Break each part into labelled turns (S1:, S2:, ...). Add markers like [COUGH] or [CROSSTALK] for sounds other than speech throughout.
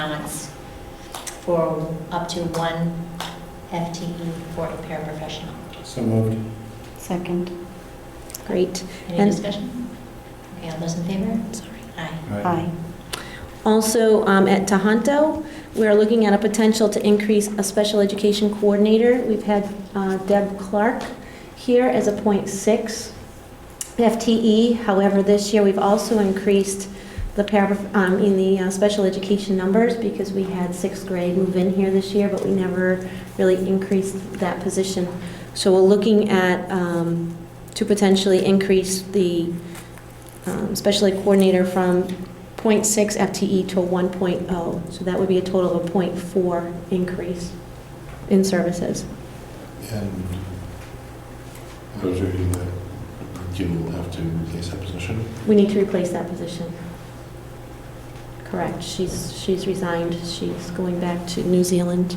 S1: response for up to one FTE for a paraprofessional.
S2: So moved.
S3: Second. Great.
S1: Any
S3: And-
S1: discussion? Okay, all those in favor?
S3: Sorry.
S1: Aye.
S3: Aye. Also, um, at Tahanto, we are looking at a potential to increase a special education coordinator. We've had uh, Deb Clark here as a .6 FTE. E. However, this year, we've also increased the para, um, in the uh, special education numbers because we had sixth grade move in here this year, but we never really increased that position. So we're looking at, um, to potentially increase the um, special ed coordinator from .6 FTE E to 1.0, so that would be a total of a .4 increase in services.
S2: And I was reading that you will have to replace that position.
S3: We need to replace that position. Correct, she's, she's resigned, she's going back to New Zealand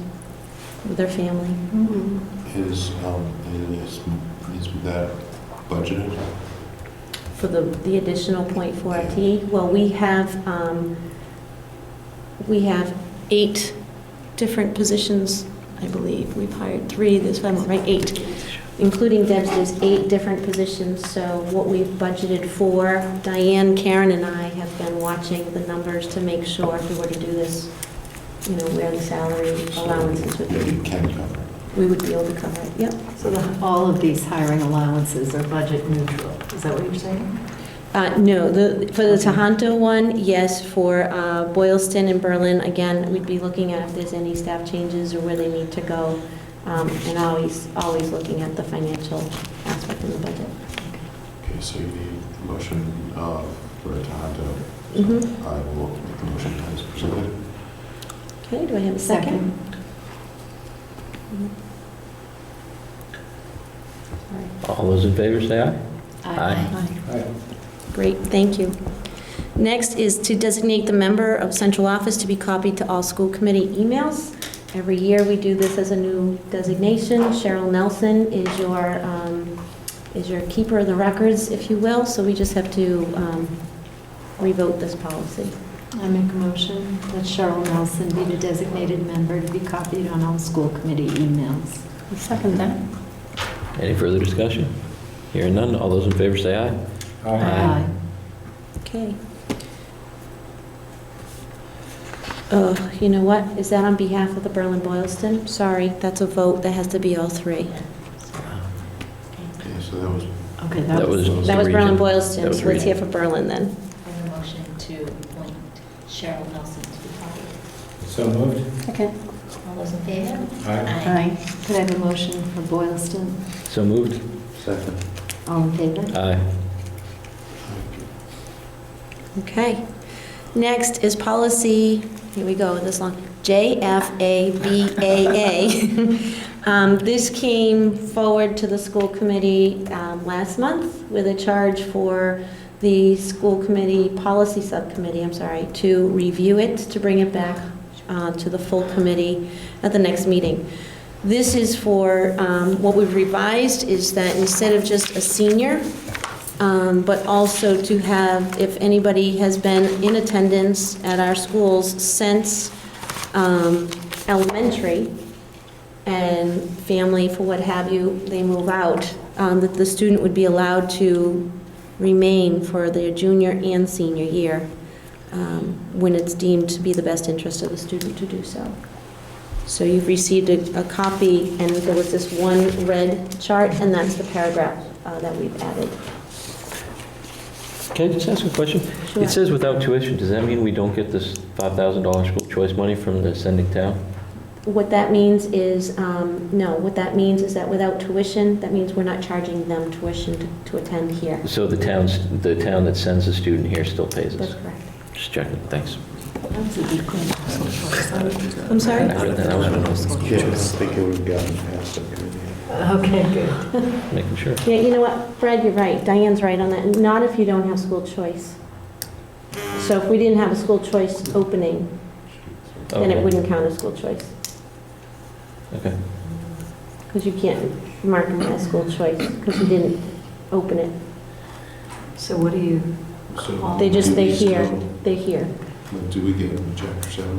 S3: with her family.
S2: Is, um, is, is that budgeted?
S3: For the, the additional .4 FTE, well, we have, um, we have eight different positions, I believe. We've hired three this time, right, eight, including Deb's, there's eight different positions. So what we've budgeted for, Diane, Karen, and I have been watching the numbers to make sure if we were to do this, you know, where the salary allowances would
S2: Yeah, You
S3: be,
S2: can cover it.
S3: we would be able to cover it, yep.
S4: So the- all of these hiring allowances are budget neutral, is that what you're saying?
S3: Uh, No, the, for the Tahanto one, yes, for uh, Boylston and Berlin, again, we'd be looking at if there's any staff changes or where they need to go, um, and always, always looking at the financial aspect in the budget.
S2: Okay, so you need a motion uh, for a Tohoto.
S3: Mhm.
S2: I will make the motion as presented.
S3: Okay, do I have a second? Mm-hmm. Sorry.
S5: All those in favor say aye. Aye.
S3: Great, thank you. Next is to designate the member of central office to be copied to all school committee emails. Every year, we do this as a new designation. Cheryl Nelson is your, um, is your keeper of the records, if you will, so we just have to um, revote this policy.
S4: I make a motion that Cheryl Nelson be the designated member to be copied on all school committee emails.
S3: Second that.
S5: Any further discussion? Hearing none, all those in favor say aye. Aye.
S3: Okay. Oh, you know what? Is that on behalf of the Berlin Boylston? Sorry, that's a vote. That has to be all three.
S2: Okay, so that was,
S4: Okay,
S5: That was the
S3: That was Berlin
S5: region.
S3: Boylston,
S5: That was
S3: so let's hear from
S5: region.
S3: Berlin then.
S1: And a motion to appoint Cheryl Nelson to be copied.
S6: So moved.
S4: Okay.
S1: All those in favor?
S6: Aye.
S4: Aye. Could I have a motion for Boylston?
S5: So moved.
S2: second.
S4: All in favor?
S5: Aye.
S3: Okay. Next is policy, here we go, this long, JFABAA. [LAUGHS] Um, This came forward to the school committee um, last month with a charge for the school committee, policy subcommittee, I'm sorry, to review it, to bring it back uh, to the full committee at the next meeting. This is for, um, what we've revised is that instead of just a senior, um, but also to have, if anybody has been in attendance at our schools since um, elementary and family, for what have you, they move out, um, that the student would be allowed to remain for their junior and senior year um, when it's deemed to be the best interest of the student to do so. So you've received a a copy, and there was this one red chart, and that's the paragraph uh, that we've added.
S5: Can I just ask a question?
S3: Sure.
S5: It says without tuition, does that mean we don't get this $5,000 school choice money from the sending town?
S3: What that means is, um, no, what that means is that without tuition, that means we're not charging them tuition to- to attend here.
S5: So the town's, the town that sends a student here still pays
S3: That's
S5: us?
S3: correct.
S5: Just checking, thanks.
S4: That was a good question.
S3: I'm sorry?
S5: I read that, I was gonna-
S2: Yeah, I don't think it would have gotten past the committee.
S4: Okay, good.
S5: making sure.
S3: Yeah, you know what, Fred, you're right, Diane's right on that, not if you don't have school choice. So if we didn't have a school choice opening, then
S5: Okay.
S3: it wouldn't count as school choice.
S5: Okay.
S3: Because you can't mark them as school choice, because you didn't open it.
S4: So what do you
S2: So
S3: They just,
S2: do we
S3: they hear,
S2: still-
S3: they hear.
S2: Do we get a chapter seven